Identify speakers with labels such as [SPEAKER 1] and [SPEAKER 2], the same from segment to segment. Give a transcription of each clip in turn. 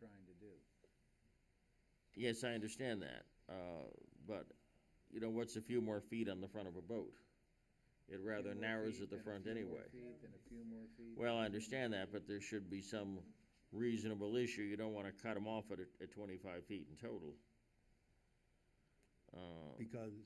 [SPEAKER 1] trying to do.
[SPEAKER 2] Yes, I understand that, uh, but, you know, what's a few more feet on the front of a boat? It rather
[SPEAKER 1] Few more
[SPEAKER 2] narrows
[SPEAKER 1] feet
[SPEAKER 2] at the
[SPEAKER 1] and a
[SPEAKER 2] front
[SPEAKER 1] few more
[SPEAKER 2] anyway.
[SPEAKER 1] feet and a few more feet.
[SPEAKER 2] Well, I understand that, but there should be some reasonable issue, you don't wanna cut them off at, at twenty-five feet in total. Uh,
[SPEAKER 3] because,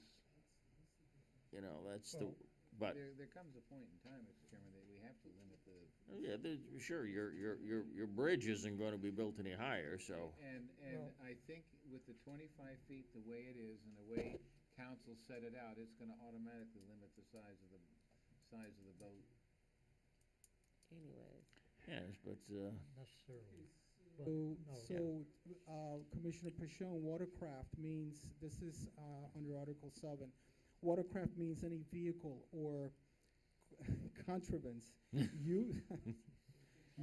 [SPEAKER 2] you know, that's the,
[SPEAKER 3] Well,
[SPEAKER 2] but,
[SPEAKER 1] There, there comes a point in time, Mr. Chairman, that we have to limit the,
[SPEAKER 2] yeah, there- sure, your, your, your, your bridge isn't gonna be built any higher, so.
[SPEAKER 1] and, and I think with the twenty-five feet, the way it is and the way council set it out, it's gonna automatically limit the size of the, size of the boat.
[SPEAKER 4] Anyways,
[SPEAKER 2] Yes, but, uh,
[SPEAKER 3] necessarily, but,
[SPEAKER 5] So,
[SPEAKER 3] no.
[SPEAKER 5] so, uh, Commissioner Pashon, watercraft means, this is, uh, under Article seven. Watercraft means any vehicle or contrivance. You,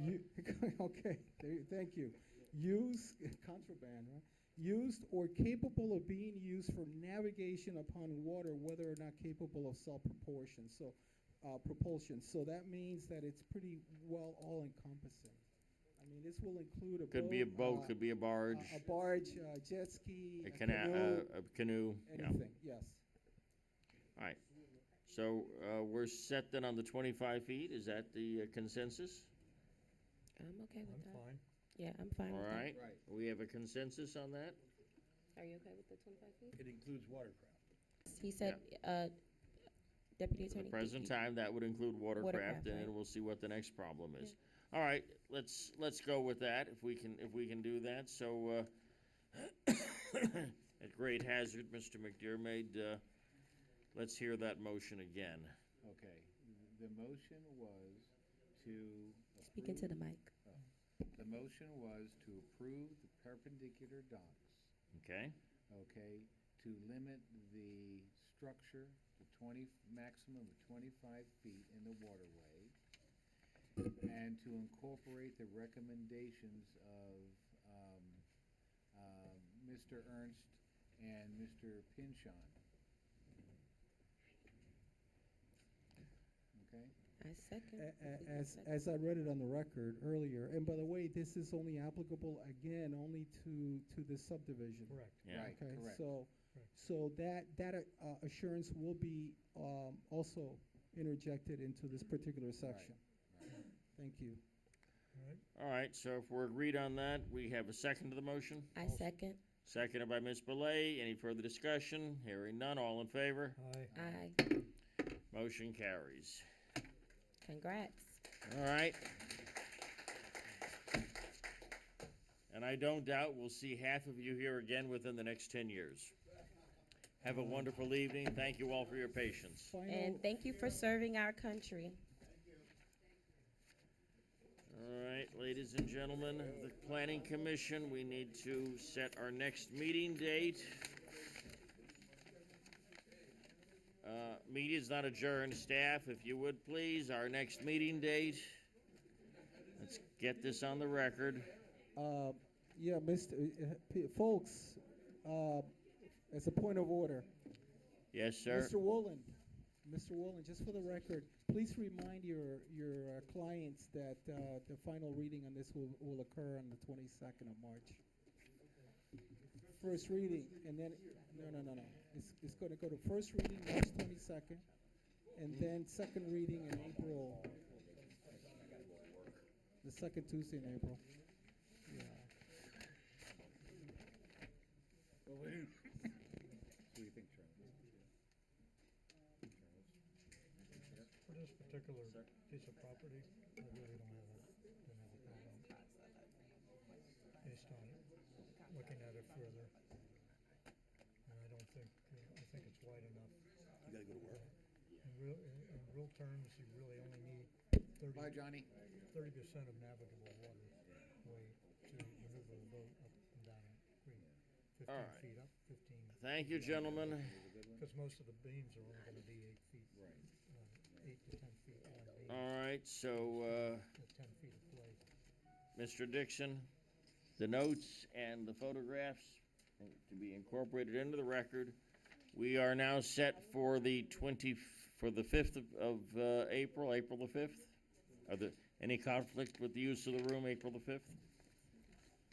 [SPEAKER 5] you, okay, there, you- thank you. Used, contraband, right? Used or capable of being used for navigation upon water, whether or not capable of self-propulsion, so, uh, propulsion. So that means that it's pretty well all-encompassing. I mean, this will include a boat.
[SPEAKER 2] could be a
[SPEAKER 5] uh,
[SPEAKER 2] boat, could be a
[SPEAKER 5] a-
[SPEAKER 2] barge,
[SPEAKER 1] uh,
[SPEAKER 5] A barge, a jet ski,
[SPEAKER 2] a
[SPEAKER 5] a
[SPEAKER 2] cana- uh,
[SPEAKER 5] canoe,
[SPEAKER 2] a- a canoe, yeah.
[SPEAKER 5] anything, yes.
[SPEAKER 2] So, uh, we're set then on the twenty-five feet, is that the uh, consensus?
[SPEAKER 4] I'm okay with
[SPEAKER 3] I'm
[SPEAKER 4] that.
[SPEAKER 3] fine.
[SPEAKER 4] Yeah, I'm fine
[SPEAKER 2] All
[SPEAKER 4] with that.
[SPEAKER 2] right, we have a consensus on that?
[SPEAKER 4] Are you okay with the twenty-five feet?
[SPEAKER 1] It includes watercraft.
[SPEAKER 4] He said, uh, Deputy
[SPEAKER 2] At
[SPEAKER 4] Attorney.
[SPEAKER 2] the
[SPEAKER 4] did
[SPEAKER 2] present
[SPEAKER 4] you-
[SPEAKER 2] time, that would include watercraft,
[SPEAKER 4] Watercraft,
[SPEAKER 2] and then
[SPEAKER 4] right.
[SPEAKER 2] we'll see what the next problem is. All right, let's, let's go with that, if we can, if we can do that, so, uh, at great hazard, Mr. McDermott, uh, let's hear that motion again.
[SPEAKER 1] Okay, the motion was to.
[SPEAKER 4] Speak into
[SPEAKER 1] approve-
[SPEAKER 4] the mic.
[SPEAKER 1] The motion was to approve the perpendicular docks,
[SPEAKER 2] Okay,
[SPEAKER 1] okay, to limit the structure to twenty, maximum of twenty-five feet in the waterway, and to incorporate the recommendations of, um, um, Mr. Ernst and Mr. Pinchon. Okay?
[SPEAKER 4] I
[SPEAKER 5] A-
[SPEAKER 4] second. Is
[SPEAKER 5] a-
[SPEAKER 4] there a
[SPEAKER 5] As,
[SPEAKER 4] second?
[SPEAKER 5] as I read it on the record earlier, and by the way, this is only applicable, again, only to, to the subdivision.
[SPEAKER 3] Correct.
[SPEAKER 2] yeah,
[SPEAKER 1] Right,
[SPEAKER 5] Okay,
[SPEAKER 1] correct.
[SPEAKER 5] so,
[SPEAKER 3] Correct.
[SPEAKER 5] so that, that uh, assurance will be um, also interjected into this particular section. Thank you.
[SPEAKER 3] All right.
[SPEAKER 2] all right, so if we're agreed on that, we have a second to the motion,
[SPEAKER 4] I second.
[SPEAKER 2] seconded by Ms. Belay, any further discussion? Hearing none, all in favor,
[SPEAKER 3] Aye.
[SPEAKER 4] Aye.
[SPEAKER 2] motion carries.
[SPEAKER 4] Congrats.
[SPEAKER 2] All right. And I don't doubt we'll see half of you here again within the next ten years. Have a wonderful evening. Thank you all for your patience.
[SPEAKER 5] Final,
[SPEAKER 4] And thank you for serving our country.
[SPEAKER 2] All right, ladies and gentlemen, of the planning commission, we need to set our next meeting date. Uh, meeting's not adjourned, staff, if you would please, our next meeting date. Let's get this on the record.
[SPEAKER 5] uh, yeah, Mr., uh, p- folks, uh, as a point of order,
[SPEAKER 2] Yes, sir?
[SPEAKER 5] Mr. Woolen, Mr. Woolen, just for the record, please remind your, your uh, clients that uh, the final reading on this will, will occur on the 22nd of March. First reading, and then, no, no, no, no. It's, it's going to go to first reading March 22nd, and then second reading in April. The second Tuesday in April. Yeah.
[SPEAKER 1] What do you think, Charlie?
[SPEAKER 3] For this particular piece of property, I really don't have a, don't have a problem. Based on looking at it further. And I don't think, uh, I think it's wide enough.
[SPEAKER 6] You gotta go to work.
[SPEAKER 3] In real, in, in real terms, you really only need
[SPEAKER 1] Bye,
[SPEAKER 3] thirty,
[SPEAKER 1] Johnny.
[SPEAKER 3] thirty percent of navigable water way to maneuver the boat up and down a creek. Fifteen
[SPEAKER 2] Alright.
[SPEAKER 3] feet up, fifteen,
[SPEAKER 2] Thank you, gentlemen.
[SPEAKER 3] because most of the beams are only gonna be eight feet,
[SPEAKER 1] Right.
[SPEAKER 3] uh, eight to ten feet wide beams.
[SPEAKER 2] All right, so,
[SPEAKER 3] with ten feet of play.
[SPEAKER 2] uh, Mr. Dixon, the notes and the photographs to be incorporated into the record. We are now set for the twenty, for the fifth of, of, uh, April, April the fifth? Are there any conflict with the use of the room, April the fifth?